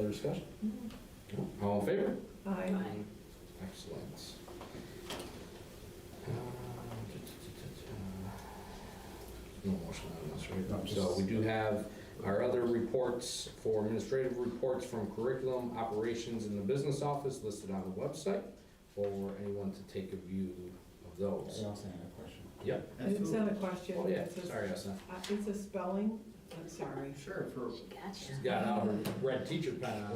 Other discussion? All in favor? Aye. Excellent. Uh, No motion on this, No, right? just- So we do have our other reports for administrative reports from curriculum, operations, and the business office listed on the website for anyone to take a view of I those. also had a question. Yep. It's not a question. Oh, yeah, it's a- sorry, Esna. uh, It's a spelling, I'm sorry. Sure, for She's got out her red teacher pen on.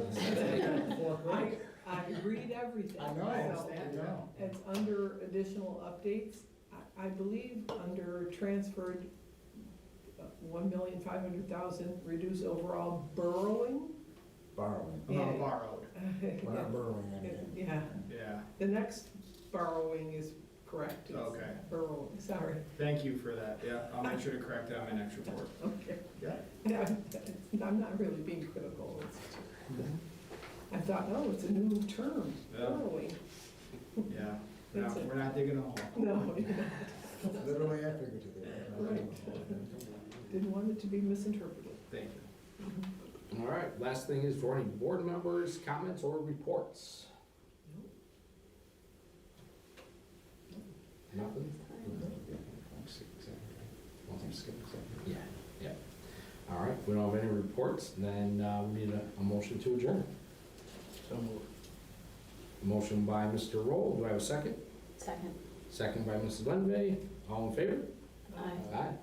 Fourth I, I read everything. I know, so I know. It's under additional updates, I, I believe, under transferred uh, one million five hundred thousand, reduce overall borrowing. Borrowing. Yeah. amount borrowed. We're not borrowing anything. Yeah, Yeah, the next borrowing is correct. It's Okay. Borrowing, sorry, thank you for that. Yeah, I'll make sure to correct that in my next report. okay. Yeah. Yeah, I'm not really being critical. It's just- I thought, oh, it's a new term, Yeah. borrowing. Yeah, no, That's it. we're not digging a hole. No, you know, Literally and figuratively. didn't want it to be misinterpreted. Mm-hmm. Thank you. All right, last thing is for any board members, comments, or reports? Nothing? Well, I'm skipping something. Yeah, yeah. All right, we don't have any reports, then uh, we need a, a motion to adjourn. Motion by Mr. Roll, do I have a second? Second. Second by Mrs. Lenve, all in favor? Aye. Aye.